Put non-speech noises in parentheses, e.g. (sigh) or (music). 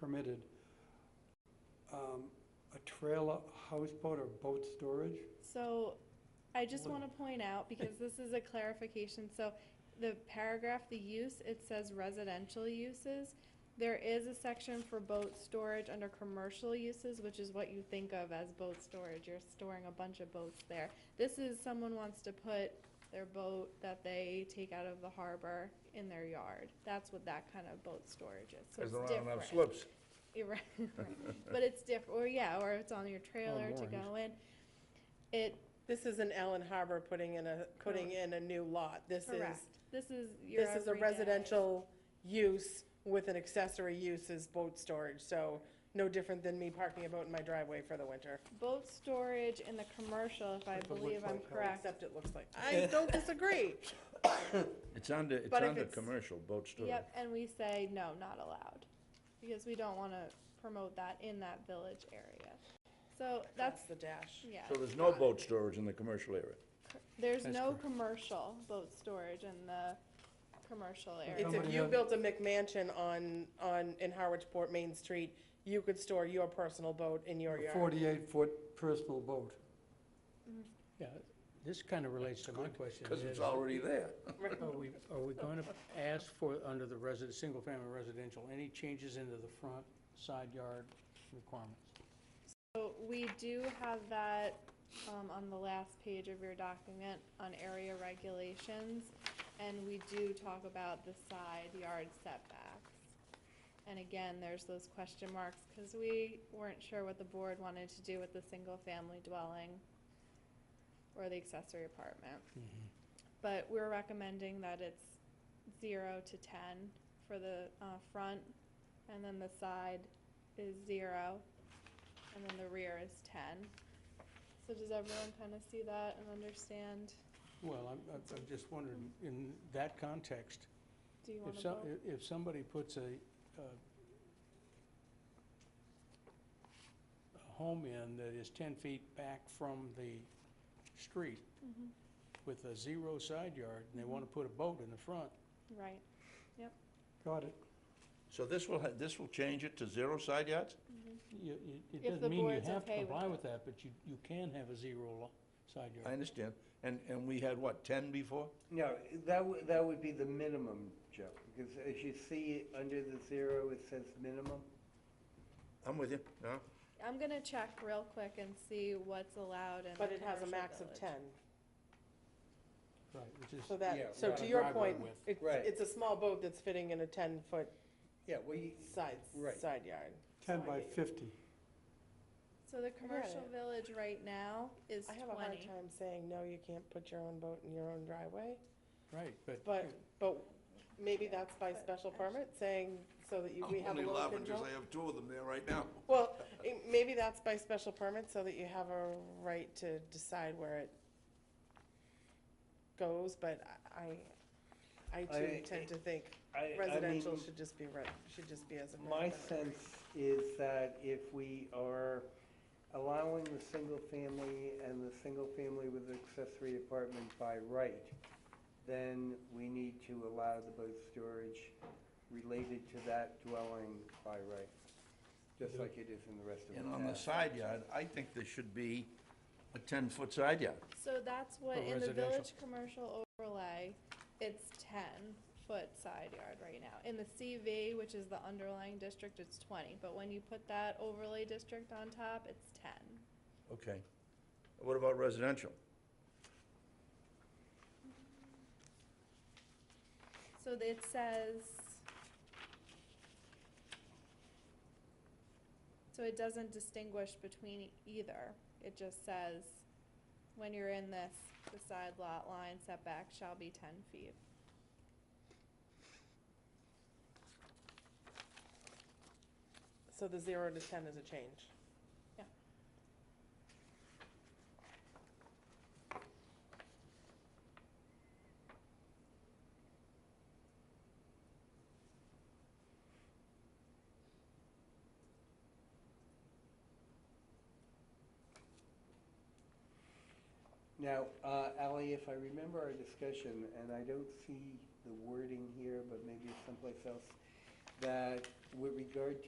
permitted um, a trailer, houseboat or boat storage? So I just Hold want to point out, because this is a clarification, so the paragraph, the use, it says residential uses. There is a section for boat storage under commercial uses, which is what you think of as boat storage. You're storing a bunch of boats there. This is someone wants to put their boat that they take out of the harbor in their yard. That's what that kind of boat storage is. So it's Because there different. aren't enough slips. (laughs) You're right, right. But it's diff, or yeah, or it's on your trailer to moorings. go in. It, This isn't Allen Harbor putting in a, putting in a new lot. This is, correct, this is your this is a everyday. residential use with an accessory use as boat storage, so no different than me parking a boat in my driveway for the winter. Boat storage in the commercial, if I That's what it believe looks like, I'm how it's- correct. Except it looks like, (laughs) I don't disagree. (laughs) It's under, it's But if under it's- commercial boat storage. Yep, and we say, no, not allowed, because we don't wanna promote that in that village area. So that's, That's the dash. yeah, So there's no boat storage in the commercial area. there's That's no correct. commercial boat storage in the commercial area. It's if Somebody you had- built a McMansion on, on, in Harwichport Main Street, you could store your personal boat in your A yard. forty-eight foot personal boat. Yeah, this kind of relates to my question. Because it's is, already there. Are we, are we going to ask for, under the resident, single-family residential, any changes into the front, side yard requirements? So we do have that, um, on the last page of your document on area regulations, and we do talk about the side yard setbacks. And again, there's those question marks, cause we weren't sure what the board wanted to do with the single-family dwelling or the accessory apartment. But we're recommending that it's zero to ten for the, uh, front, and then the side is zero, and then the rear is ten. So does everyone kind of see that and understand? Well, I'm, I'm- I'm just wondering, in that context, Do you want if to some, vote? if- if somebody puts a, a a home in that is ten feet back from the street Mhm. with a zero side yard, and they want to Mm-hmm. put a boat in the front, Right. Got it. So this will, ha- this will change it to zero side yards? You, you, If it the doesn't mean you board's have to okay with comply it. with that, but you, you can have a zero lo- side I yard. understand. And, and we had what, ten before? No, that would, that would be the minimum, Joe, because as you see, under the zero, it says minimum. I'm with you, no? I'm gonna check real quick and see what's allowed in the But it has a commercial max of village. ten. Right, which is, So Yeah, that, so right. to your Driveway point, width. it's, Right. it's a small boat that's fitting in a ten-foot Yeah, well, you, side, Right. side yard. Ten So I by get you. fifty. So the commercial it. village right now is I have a hard twenty. time saying, no, you can't put your own boat in your own driveway, right, but. but, but maybe that's by But special actually- permit, saying, so that you, we have a little control. have two of them there right now. Well, eh, maybe that's by special permit, so that you have a right to decide where it goes, but I, I too I- tend to think I- I residential mean, should just be re, should just be as a. My residential. sense is that if we are allowing the single family and the single family with accessory apartment by right, then we need to allow the boat storage related to that dwelling by right, just like it is in the rest of the town. And on the side yard, I think there should be a ten-foot side yard. So that's what, For in the residential. village commercial overlay, it's ten foot side yard right now. In the CV, which is the underlying district, it's twenty, but when you put that overlay district on top, it's ten. Okay. What about residential? So it says, so it doesn't distinguish between e- either. It just says, when you're in this, the side lot line setback shall be ten feet. So the zero to ten is a change. Yeah. Now, uh, Ally, if I remember our discussion, and I don't see the wording here, but maybe it's someplace else, that with regard to